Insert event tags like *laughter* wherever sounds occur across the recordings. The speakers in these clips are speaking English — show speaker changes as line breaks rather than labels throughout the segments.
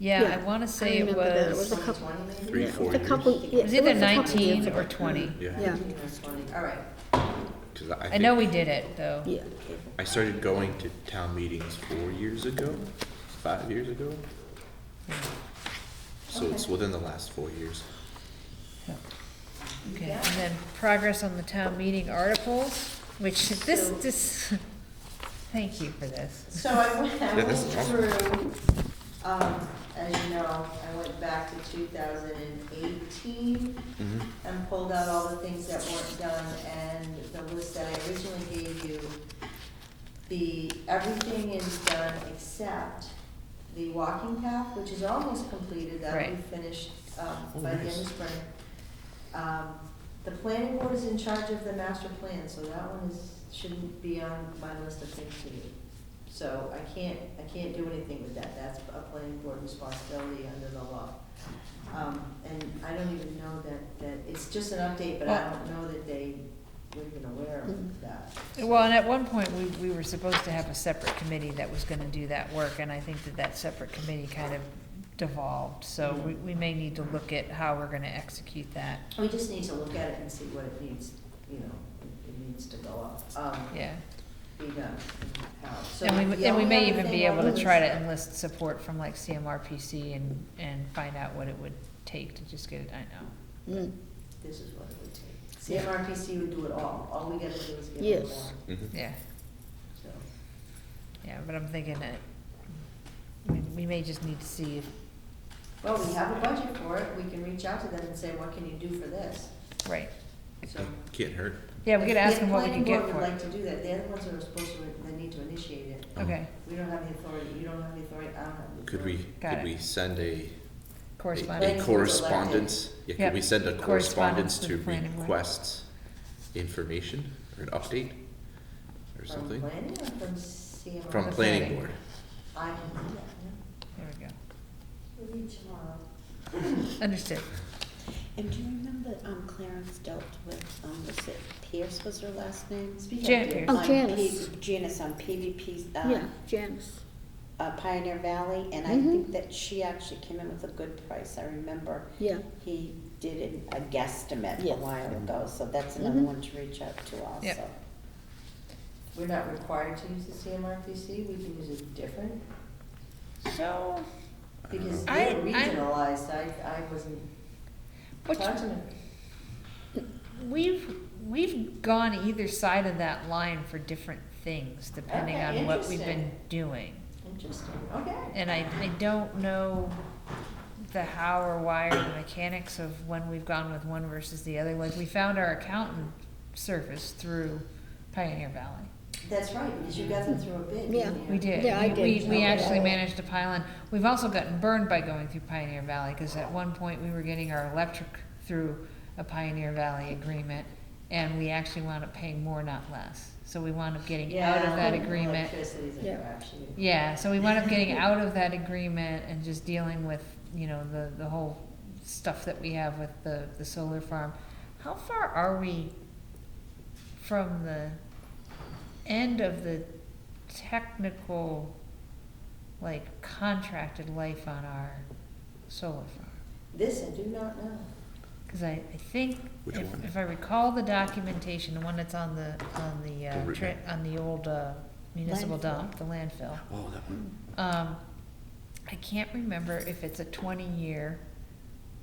Yeah, I
Yeah,
want to say it
remember that. It
was,
was a couple.
Three,
yeah,
four
it's a
years?
couple- yeah,
it was either
a couple years
19
ago.
or 20.
Yeah,
All right,
Because I,
I know we
think
did it, though.
yeah.
I started going to town meetings four years ago, five years ago. So it's within the last four years.
So, Okay, and then progress on the town meeting articles, which this, this, *laughs* thank you for this.
so I went, I
Yeah,
went
this is awesome.
through, um, as you know, I went back to two thousand and eighteen
Mhm.
and pulled out all the things that weren't done and the list that I originally gave you. The, everything is done except the walking path, which is almost completed, that will be
Right.
finished, um,
Oh,
by the end
nice.
of spring. Um, the planning board is in charge of the master plan, so that one is, shouldn't be on my list of things to do. So I can't, I can't do anything with that, that's a planning board responsibility under the law. Um, and I don't even know that, that, it's just an update, but I
Well-
don't know that they were even aware of that.
Well, and at one point, we, we were supposed to have a separate committee that was gonna do that work, and I think that that separate committee kind of devolved, so
Mm-hmm.
we, we may need to look at how we're gonna execute that,
We just need to look at it and see what it needs, you know, it- it needs to go up, um,
yeah.
be done, how. So
And we,
the
and we may
only other
even be
thing I'll
able
do
to
is-
try to enlist support from like CMRPC and, and find out what it would take to just get it, I know.
Mm.
This is what it would take. CMRPC would do it all, all we gotta do is give them
Yes.
one,
Mhm.
Yeah,
so.
yeah, but I'm thinking that, I mean, we may just need to see if,
Well, we have a budget for it, we can reach out to them and say, what can you do for this?
right,
So.
Can't hurt.
yeah, we
If
could ask them what we can get
The
for
planning board would like
it.
to do that, they're the ones that are supposed to, that need to initiate it.
Okay,
We don't have the authority, you don't have the authority, I don't have the authority.
Could we,
Got
could
it.
we send a, a
correspondence,
Planning board's elected.
correspondence? Yeah,
Yep.
could we send a
Correspondence
correspondence
to
to
the planning board.
request information or an update or something?
From planning or from CMRPC?
From
The
planning
planning.
board.
I can do that,
there we go,
yeah. We'll meet tomorrow.
understood,
And do you remember um, Clarence dealt with, um, was it Pierce was her last name?
Speaking of
Jan-
Pierce,
Oh,
on
Janice.
P- Janice on PVP's, uh,
Yeah, Janice.
uh, Pioneer Valley, and I
Mhm.
think that she actually came in with a good price, I remember.
Yeah.
He did an- a guesstimate a
Yes.
while ago, so that's another
Mhm.
one to reach out to also.
Yep.
We're not required to use the CMRPC, we can use a different,
So,
I don't
because
know.
I-
they're
I-
regionalized, I, I wasn't,
which,
talk to them.
we've, we've gone either side of that line for different things, depending
Okay,
on what we've
interesting.
been doing.
Interesting, okay.
And I, I don't know the how or why or the mechanics of when we've gone with one versus the other. Like, we found our accountant service through Pioneer Valley.
That's right, because you got them through a bid,
Yeah.
didn't you?
We did.
Yeah, I
We,
did.
we actually
Okay.
managed to pile in. We've also gotten burned by going through Pioneer Valley, because at one point, we were getting our electric through a Pioneer Valley agreement, and we actually wound up paying more, not less. So we wound up getting out of that
Yeah,
agreement.
Electricity's a
Yeah.
crapshoot.
Yeah, so we wound up
*laughs*
getting out of that agreement and just dealing with, you know, the, the whole stuff that we have with the, the solar farm. How far are we from the end of the technical, like, contracted life on our solar farm?
This I do not know.
Cause I, I think,
Which
if,
one?
if I recall the documentation, the one that's on the, on the, uh,
The
tra-
original.
on the old, uh, municipal
Landfill.
dump, the landfill.
Oh, that one.
Um, I can't remember if it's a twenty-year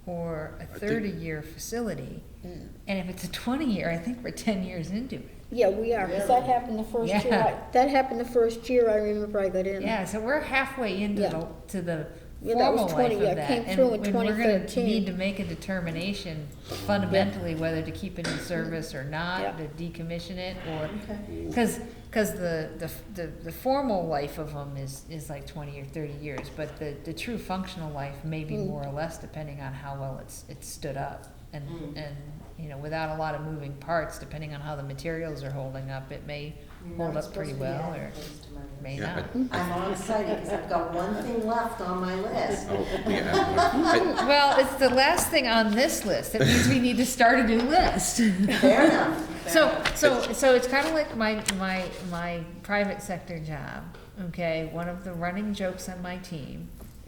or a
think-
thirty-year facility. And if it's a twenty-year, I think we're ten years into it.
Yeah, we are, 'cause that happened the first year,
Yeah.
I- that happened the first year I remember I got in.
Yeah, so we're halfway into
Yeah.
the, to the
Yeah, that was
formal life
20, yeah,
of
it
that.
came
and
through in
when we're gonna
2013.
Need to make a determination fundamentally whether to keep it in service or not, to
Yeah.
decommission it or,
Okay.
Because, because the, the, the, the formal life of them is, is like twenty or thirty years, but the, the true functional life may be
Mm.
more or less depending on how well it's, it's stood up. And,
Mm.
and, you know, without a lot of moving parts, depending on how the materials are holding up, it may
You're
hold
not
up
supposed
pretty
to be
well
adding
or
things to my list.
may
Yeah, I-
not.
I'm all excited because I've got one thing left on my
*laughs*
list.
Oh, we have one. I-
Well, it's the last thing on this list. That means we need to start a new list. *laughs*
Fair enough. fair
So,
enough.
so, so it's kind of like my, my, my private sector job, okay? One of the running jokes on my team